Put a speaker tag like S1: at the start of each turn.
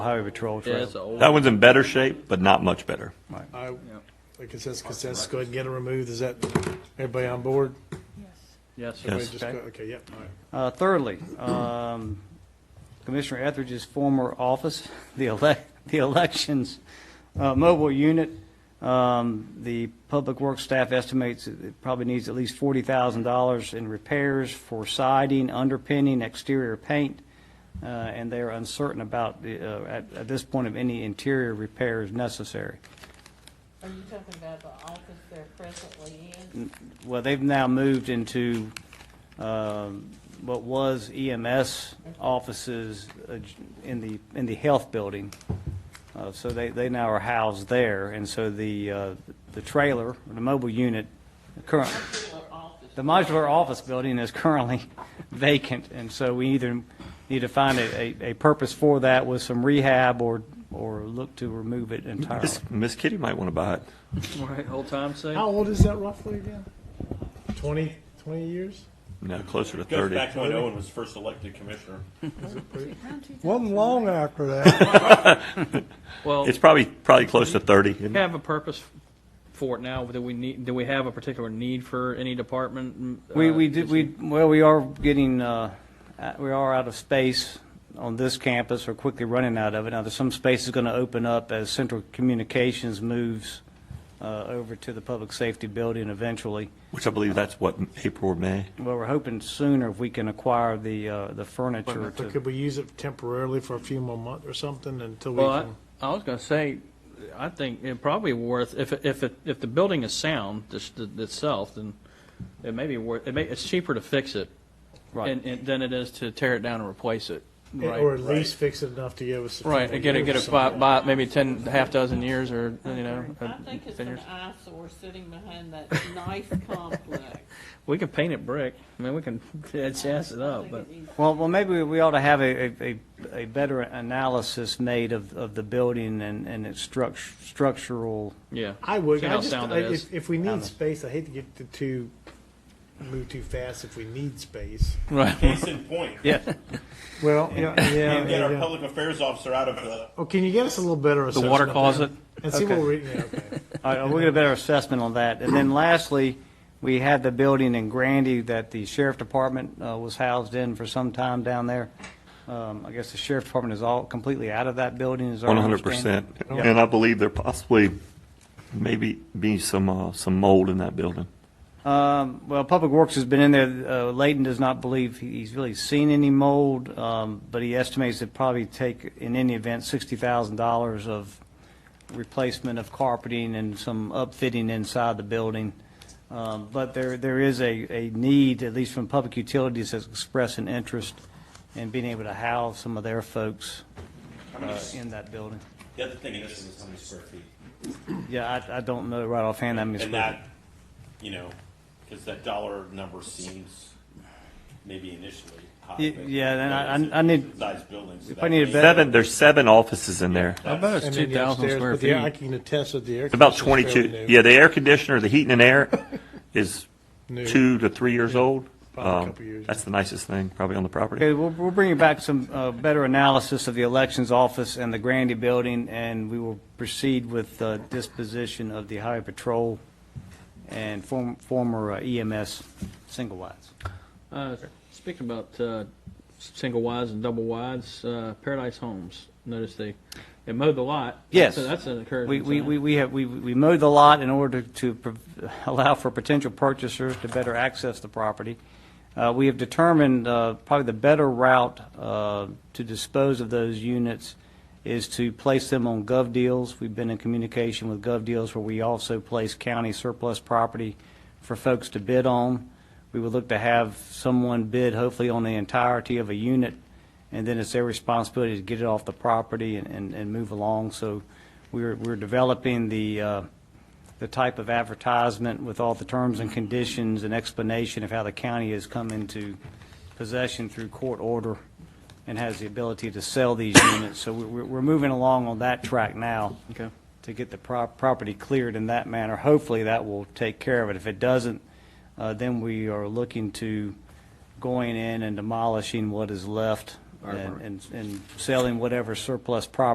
S1: Highway Patrol
S2: Yeah,
S1: Trail.
S2: it's an old,
S3: That one's in better shape, but not much better.
S4: I, the consensus, consensus, go ahead and get it removed, is that, everybody on board?
S2: yes.
S3: Yes.
S4: Everybody just go- Okay, yep, all right.
S1: Uh, Thirdly, um, Commissioner Etheridge's former office, the elec, the elections uh, mobile unit, um, the public works staff estimates it probably needs at least $40,000 in repairs for siding, underpinning, exterior paint, uh, and they are uncertain about, the, uh, at at this point, of any interior repairs necessary.
S5: Are you talking about the office they're presently
S2: Mm,
S5: in?
S1: Well, they've now moved into um, what was EMS offices uh, in the, in the health building. Uh, So they, they now are housed there, and so the, uh, the trailer, the mobile unit, the current, the modular office building is currently vacant, and so we either need to find a, a- a purpose for that with some rehab or, or look to remove it
S4: Oh.
S1: entirely.
S3: Miss, Miss Kitty might want to buy it.
S2: Right, old time sake.
S4: How old is that roughly again? Twenty, twenty years?
S3: No, closer to
S6: Goes
S3: 30.
S6: back to when Owen was first elected commissioner.
S7: Wasn't long after that.
S2: Well,
S3: It's probably probably close to 30. isn't it?
S2: have a purpose for it now, do we need, do we have a particular need for any department?
S1: We,
S2: Uh,
S1: we did, we, well, we are getting, uh, uh, we are out of space on this campus, or quickly running out of it. Now, there's some space is going to open up as Central Communications moves uh, over to the Public Safety Building eventually.
S3: Which I believe that's what, April or May?
S1: Well, we're hoping sooner if we can acquire the, uh, the furniture
S4: But
S1: to,
S4: could we use it temporarily for a few more months or something until we
S2: Well, I,
S4: can?
S2: I was gonna say, I think it probably worth, if, it- if, it- if the building is sound just th- itself, then it may be worth, it may, it's cheaper to fix it
S1: right.
S2: and, and than it is to tear it down and replace it.
S4: Or
S2: Right,
S4: at least fix it enough to give us. a few
S2: right,
S4: more
S2: and get it,
S4: years
S2: get
S4: or
S2: it by,
S4: something.
S2: by maybe ten, half dozen years or, you know. uh,
S5: I think it's
S2: 10 years.
S5: an eyesore sitting behind that nice complex.
S2: We can paint it brick, I mean, we can jazz it
S5: I
S2: up,
S5: think
S2: but.
S5: it needs-
S1: Well, well, maybe we ought to have a, a- a, a better analysis made of, of the building and, and its struct, structural,
S2: Yeah.
S4: I would,
S2: See
S4: I
S2: how
S4: just,
S2: sound
S4: I-
S2: it is.
S4: if, if we need space, I hate to get the two, move too fast if we need space.
S2: Right.
S6: Case in point.
S2: Yeah.
S4: Well, yeah, yeah,
S6: And get our
S4: yeah.
S6: public affairs officer out of the,
S4: Oh, can you get us a little better
S2: The
S4: assessment?
S2: water
S4: then?
S2: closet.
S4: And see what
S1: Okay.
S4: we, yeah, okay.
S1: All right, we'll get a better assessment on that. And then lastly, we had the building in Grandy that the sheriff department uh, was housed in for some time down there. Um, I guess the sheriff department is all completely out of that building, is our understanding.
S3: 100%. And I believe there possibly maybe be some, uh, some mold in that building.
S1: Um, Well, Public Works has been in there. Uh, Layton does not believe he's really seen any mold, um, but he estimates it probably take, in any event, $60,000 of replacement of carpeting and some upfitting inside the building. Um, But there, there is a, a need, at least from Public Utilities, has expressed an interest in being able to house some of their folks uh, in that building.
S6: the other thing is, is how many square feet.
S1: Yeah, I, I don't know right offhand, I mean.
S6: And that, you know, because that dollar number seems maybe initially high.
S1: Y-
S6: but
S1: yeah, then I-
S6: it's a
S1: I- I need-
S6: Size buildings.
S1: I need a better-
S3: Seven, there's seven offices in there.
S2: I bet
S4: And
S2: it's
S4: then
S2: two
S4: the
S2: thousand
S4: upstairs,
S2: square
S4: but the- I
S2: feet.
S4: can attest that the air.
S3: About
S4: conditioner's fairly
S3: 22,
S4: new.
S3: yeah, the air conditioner, the heat and air is
S4: New.
S3: two to three years old.
S4: Probably a
S3: Um,
S4: couple years,
S3: That's the nicest thing, probably on the
S1: Okay,
S3: property.
S1: we'll, we'll bring you back some uh, better analysis of the elections office and the Grandy building, and we will proceed with the disposition of the highway patrol and form- former uh, EMS single wides.
S2: Uh, Speaking about uh, single wides and double wides, uh, Paradise Homes, notice they, they mowed the lot.
S1: Yes.
S2: So that's an encouraging
S1: We,
S2: sign.
S1: we, we we have, we, we mowed the lot in order to prov- allow for potential purchasers to better access the property. Uh, we have determined, uh, probably the better route, uh, to dispose of those units is to place them on gov deals. We've been in communication with gov deals where we also place county surplus property for folks to bid on. We would look to have someone bid hopefully on the entirety of a unit and then it's their responsibility to get it off the property and, and, and move along. So we're, we're developing the, uh, the type of advertisement with all the terms and conditions and explanation of how the county has come into possession through court order and has the ability to sell these units. So we're, we're- we're moving along on that track now
S2: Okay.
S1: to get the prop- property cleared in that manner. Hopefully, that will take care of it. If it doesn't, uh, then we are looking to going in and demolishing what is left and- and and selling whatever surplus property